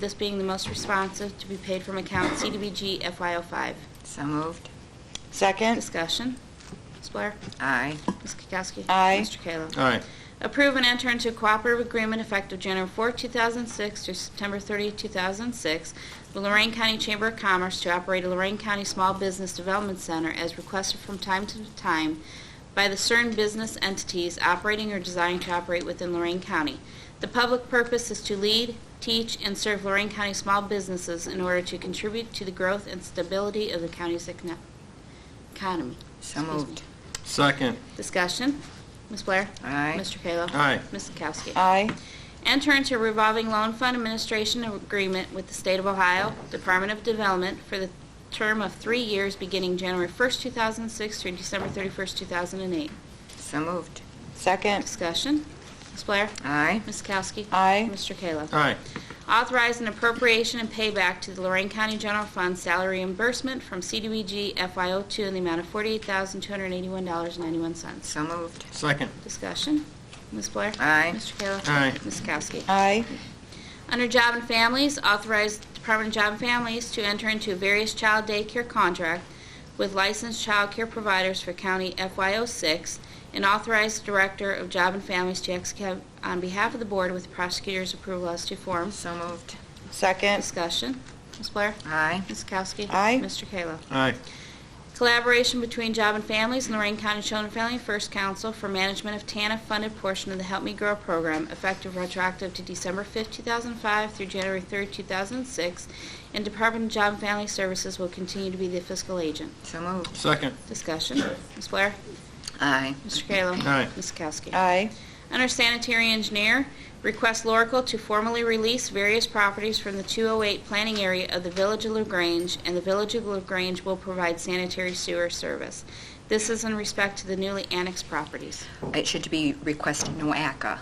this being the most responsive, to be paid from account CDBG FY05. So moved. Second. Discussion. Ms. Blair? Aye. Ms. Kukowski? Aye. Mr. Kayla? Aye. Approve and enter into cooperative agreement effective January 4, 2006 through September 30, 2006, with Lorraine County Chamber of Commerce to operate a Lorraine County Small Business Development Center as requested from time to time by the certain business entities operating or desiring to operate within Lorraine County. The public purpose is to lead, teach, and serve Lorraine County small businesses in order to contribute to the growth and stability of the county's econ- economy. So Excuse me. moved. Second. Discussion. Ms. Blair? Aye. Mr. Kayla? Aye. Ms. Kowski? Aye. Enter into revolving loan fund administration agreement with the State of Ohio Department of Development for the term of three years beginning January 1st, 2006 through December 31st, 2008. So moved. Second. Discussion. Ms. Blair? Aye. Ms. Kowski? Aye. Mr. Kayla? Aye. Authorize an appropriation and payback to the Lorraine County General Fund salary reimbursement from CDBG FY02 in the amount of $48,281.91. So moved. Second. Discussion. Ms. Blair? Aye. Mr. Kayla? Aye. Ms. Kowski? Aye. Under Job and Families, authorize Department of Job and Families to enter into various child daycare contract with licensed child care providers for County FY06 and authorize the Director of Job and Families to execute on behalf of the Board with prosecutor's approval as to form. So moved. Second. Discussion. Ms. Blair? Aye. Ms. Kowski? Aye. Mr. Kayla? Aye. Collaboration between Job and Families and Lorraine County Children and Family First Council for management of TANF-funded portion of the Help Me Grow program effective retroactive to December 5, 2005 through January 3, 2006, and Department of Job and Family Services will continue to be the fiscal agent. So moved. Second. Discussion. Ms. Blair? Aye. Mr. Kayla? Aye. Ms. Kowski? Aye. Under sanitary engineer, request Lorical to formally release various properties from the 208 planning area of the Village of LaGrange, and the Village of LaGrange will provide sanitary sewer service. This is in respect to the newly annexed properties. It should be request NOACA.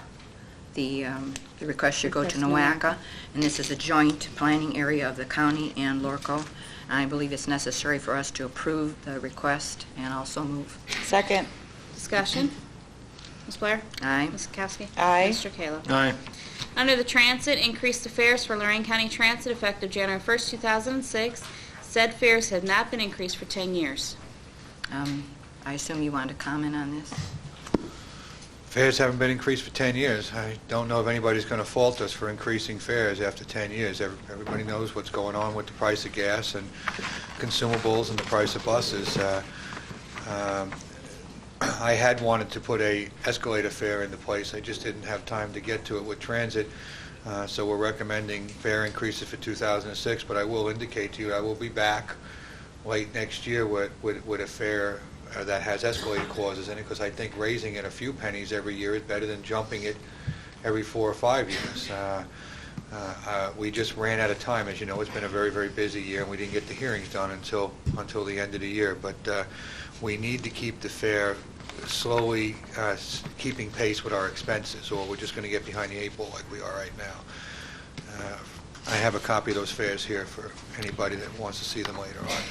The, um, the request should go to Request NOACA, and this is a joint planning area of the county and Lorco. I believe it's necessary for us to approve the request and also move. Second. Discussion? Ms. Blair? Aye. Ms. Kowski? Aye. Mr. Kayla? Aye. Under the Transit, increase the fares for Lorraine County Transit effective January 1st, 2006. Said fares have not been increased for 10 years. Um, I assume you want to comment on this? Fares haven't been increased for 10 years. I don't know if anybody's going to fault us for increasing fares after 10 years. Every- Everybody knows what's going on with the price of gas and consumables and the price of buses. Uh, um, I had wanted to put a escalator fare into place. I just didn't have time to get to it with transit. Uh, So we're recommending fare increases for 2006, but I will indicate to you, I will be back late next year with, with with a fare uh, that has escalator clauses in it, because I think raising it a few pennies every year is better than jumping it every four or five years. Uh, uh, uh, We just ran out of time, as you know, it's been a very, very busy year, and we didn't get the hearings done until, until the end of the year. But uh, we need to keep the fare slowly uh, s- keeping pace with our expenses, or we're just going to get behind the eight ball like we are right now. Uh, I have a copy of those fares here for anybody that wants to see them later on.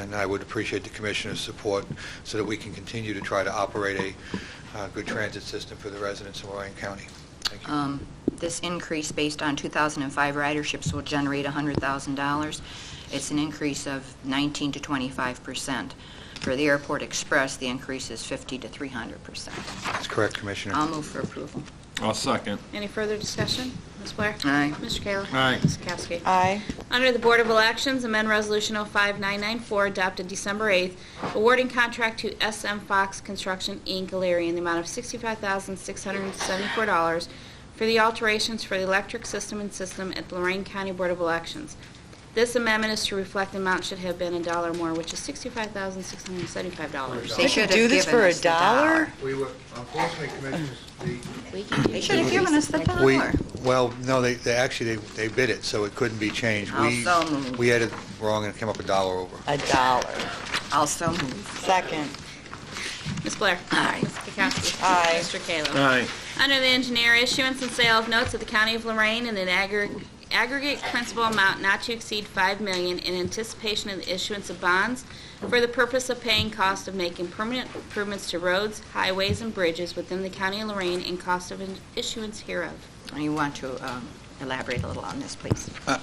And I would appreciate the commissioner's support so that we can continue to try to operate a uh, good transit system for the residents of Lorraine County. Thank you. Um, This increase based on 2005 riderships will generate $100,000. It's an increase of 19 to 25 percent. For the Airport Express, the increase is 50 to 300 percent. That's correct, Commissioner. I'll move for approval. I'll second. Any further discussion? Ms. Blair? Aye. Mr. Kayla? Aye. Ms. Kowski? Aye. Under the Board of Elections, amend Resolution 05994 adopted December 8th, awarding contract to SM Fox Construction, Inc., Alariah, in the amount of $65,674 for the alterations for the electric system and system at the Lorraine County Board of Elections. This amendment is to reflect the amount should have been a dollar more, which is $65,675. They We should could have do this given for a us the dollar? We were, unfortunately, Commissioners, We can They should have given us the We, dollar. well, no, they, they actually, they they bid it, so it couldn't be changed. We I'll so move. We had it wrong and it came up a dollar over. A dollar. Also move. Second. Ms. Blair? Aye. Ms. Kukowski? Aye. Mr. Kayla? Aye. Under the engineer, issuance and sale of notes of the County of Lorraine in an aggr- aggregate principal amount not to exceed $5 million in anticipation of the issuance of bonds for the purpose of paying cost of making permanent improvements to roads, highways, and bridges within the County of Lorraine and cost of in- issuance hereof. You want to um, elaborate a little on this, please?